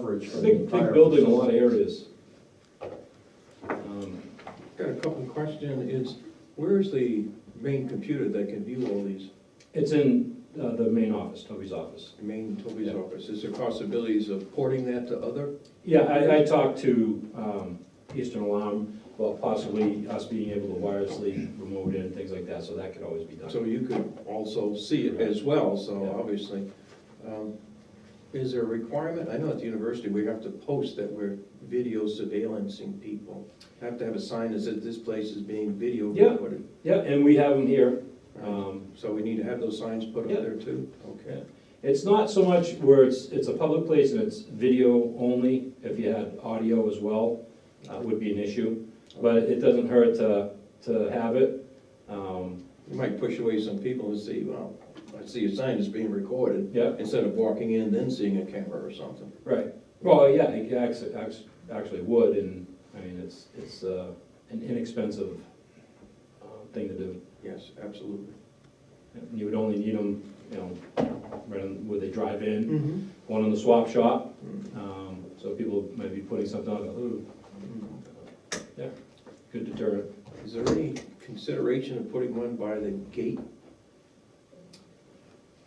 coverage for the Big, big entire building, a facility. lot of areas. Um, Got a couple of question is, where is the main computer that can view all these, It's in uh, the main office, Toby's office. the main Toby's office? Is there possibilities of porting that to other? Yeah, I, I talked to um, Eastern Alarm about possibly us being able to wirelessly remote in, things like that, so that could always be done. So you could also see it as well, so Yeah. obviously. um, Is there a requirement? I know at the university, we have to post that we're video surveillancing people. Have to have a sign that says this place is being video Yeah. recorded. Yeah, and we have them here. Right. Um, So we need to have those signs put Yeah. up there too? Okay. It's not so much where it's, it's a public place and it's video only, if you had audio as well, uh, would be an issue. But it doesn't hurt to, to have it. Um, You might push away some people and see, well, I see a sign that's being recorded. Yeah, Instead of walking in, then seeing a camera or something. right. Well, yeah, it actually, actually would, and, I mean, it's, it's uh, an inexpensive uh, thing to do. Yes, absolutely. You would only need them, you know, right on- where they drive in, one in the swap shop. Mhm. Um, So people might be putting something on, ooh, yeah, good deterrent. Mm-hmm. Is there any consideration of putting one by the gate?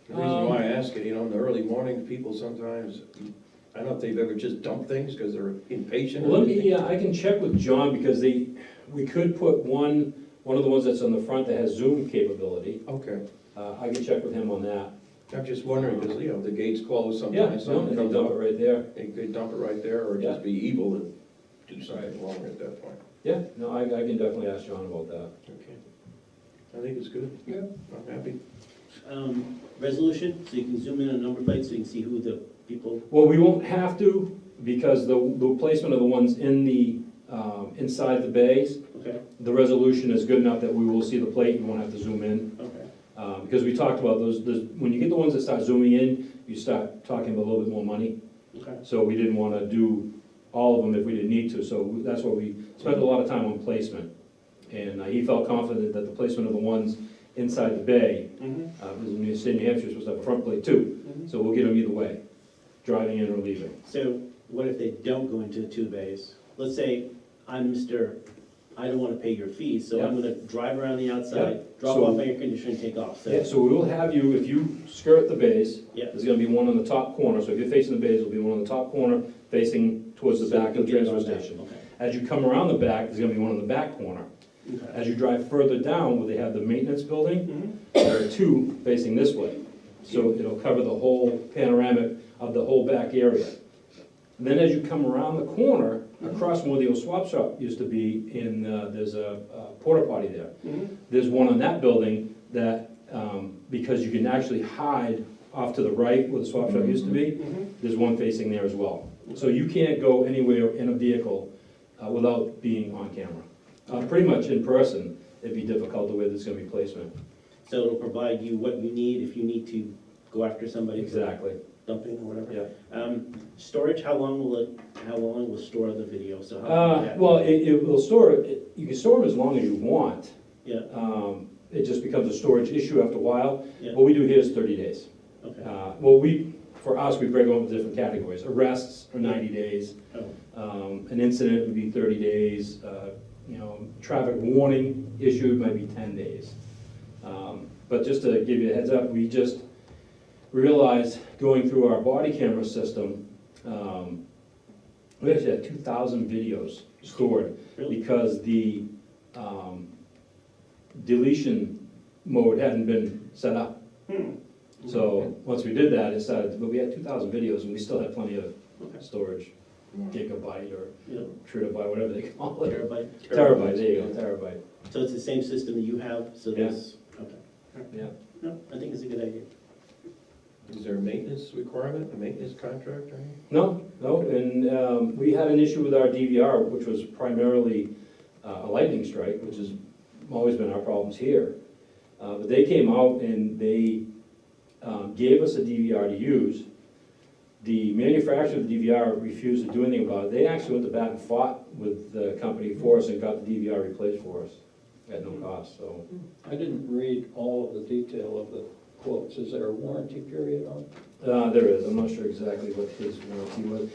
The reason why I ask it, you know, in the early morning, people sometimes, I don't know if they've ever just dumped things because they're impatient. Well, let me, yeah, I can check with John, because they, we could put one, one of the ones that's on the front that has Zoom capability. Okay, Uh, I can check with him on that. I'm just wondering, because, you know, the gate's closed Yeah, sometimes. no, someone and they comes dump it up, right there. They could dump it right there or just be evil and do something wrong at that point. Yeah, no, I, I can definitely ask John about that. Okay. I think it's good. Yeah. I'm happy. um, resolution, so you can zoom in on number plates, so you can see who the people, Well, we won't have to, because the, the placement of the ones in the, um, inside the bays, okay, the resolution is good enough that we will see the plate, you won't have to zoom in. okay. Uh, because we talked about those, those, when you get the ones that start zooming in, you start talking about a little bit more money. Okay. So we didn't want to do all of them if we didn't need to, so that's why we spent a lot of time on placement. And uh, he felt confident that the placement of the ones inside the bay, Mhm, uh, because New State, New Hampshire is supposed to have a front plate too, mhm. so we'll get them either way, driving in or leaving. So what if they don't go into the two bays? Let's say I'm Mr., I don't wanna pay your fees, so I'm gonna drive around the outside, drop So- off my air conditioner and take off, Yeah, so, so we will have you, if you skirt the bays, yeah. there's gonna be one on the top corner, so if you're facing the bays, there'll be one on the top corner facing towards the So you back can of the get it transfer on that, station. Okay, As you come around the back, there's gonna be one on the back corner. okay. As you drive further down where they have the maintenance building, Mhm, there are two facing this way. So it'll cover the whole panoramic of the whole back area. And Then as you come around the corner, across where the old swap shop used to be, in, uh, there's a uh, porta potty there. mhm. There's one on that building that, um, because you can actually hide off to the right where the swap shop used to be, Mhm. there's one facing there as well. So you can't go anywhere in a vehicle uh, without being on camera. Uh, Pretty much in person, it'd be difficult the way there's gonna be placement. So it'll provide you what you need if you need to go after somebody for Exactly. dumping or whatever. Yeah. Um, storage, how long will it, how long will store the video, so how? Uh, yeah, well, it, it will store, it- you can store them as long as you want. Yeah, Um, it just becomes a storage issue after a while. Yeah. What we do here is thirty days. okay, Uh, well, we, for us, we break them up into different categories. Arrests are ninety days. oh. Um, an incident would be thirty days. Uh, you know, traffic warning issued might be ten days. Um, but just to give you a heads up, we just realized going through our body camera system, um, we actually had two thousand videos stored Really? because the um, deletion mode hadn't been set up. Hmm. So, once we did that, it started, but we had two thousand videos and we still had plenty of Okay. storage, gigabyte or Yeah. terabyte, whatever they call it. Terabyte. Terabyte, there you go, terabyte. So it's the same system that you have, so Yeah. this, okay. Yeah. No, I think it's a good idea. Is there a maintenance requirement, a maintenance contract or anything? No, no, and um, we had an issue with our DVR, which was primarily uh, a lightning strike, which has always been our problems here. Uh, But they came out and they um, gave us a DVR to use. The manufacturer of the DVR refused to do anything about it. They actually went to bat and fought with the company for us and got the DVR replaced for us at no cost, so. I didn't read all of the detail of the quotes. Is there a warranty period on it? uh, There is, I'm not sure exactly what his warranty was.